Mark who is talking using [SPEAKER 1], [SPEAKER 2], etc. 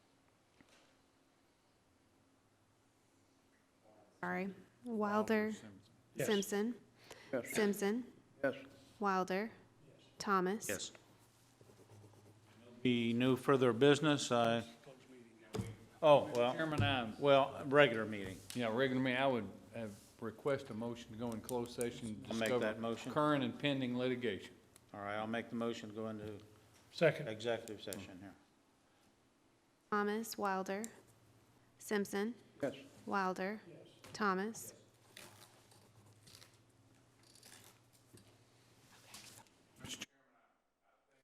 [SPEAKER 1] sorry, Wilder,
[SPEAKER 2] Yes.
[SPEAKER 1] Simpson, Simpson,
[SPEAKER 3] Yes.
[SPEAKER 1] Wilder, Thomas.
[SPEAKER 4] Yes.
[SPEAKER 2] Be no further business, I, oh, well,
[SPEAKER 5] Chairman, I,
[SPEAKER 2] well, regular meeting.
[SPEAKER 5] yeah, regular meeting, I would have request a motion to go in closed session. to
[SPEAKER 2] I'll make
[SPEAKER 5] discover
[SPEAKER 2] that motion.
[SPEAKER 5] Current and pending litigation.
[SPEAKER 2] All right, I'll make the motion, to go into
[SPEAKER 6] Second.
[SPEAKER 2] executive session here.
[SPEAKER 1] Thomas, Wilder, Simpson,
[SPEAKER 3] Yes.
[SPEAKER 1] Wilder, Thomas,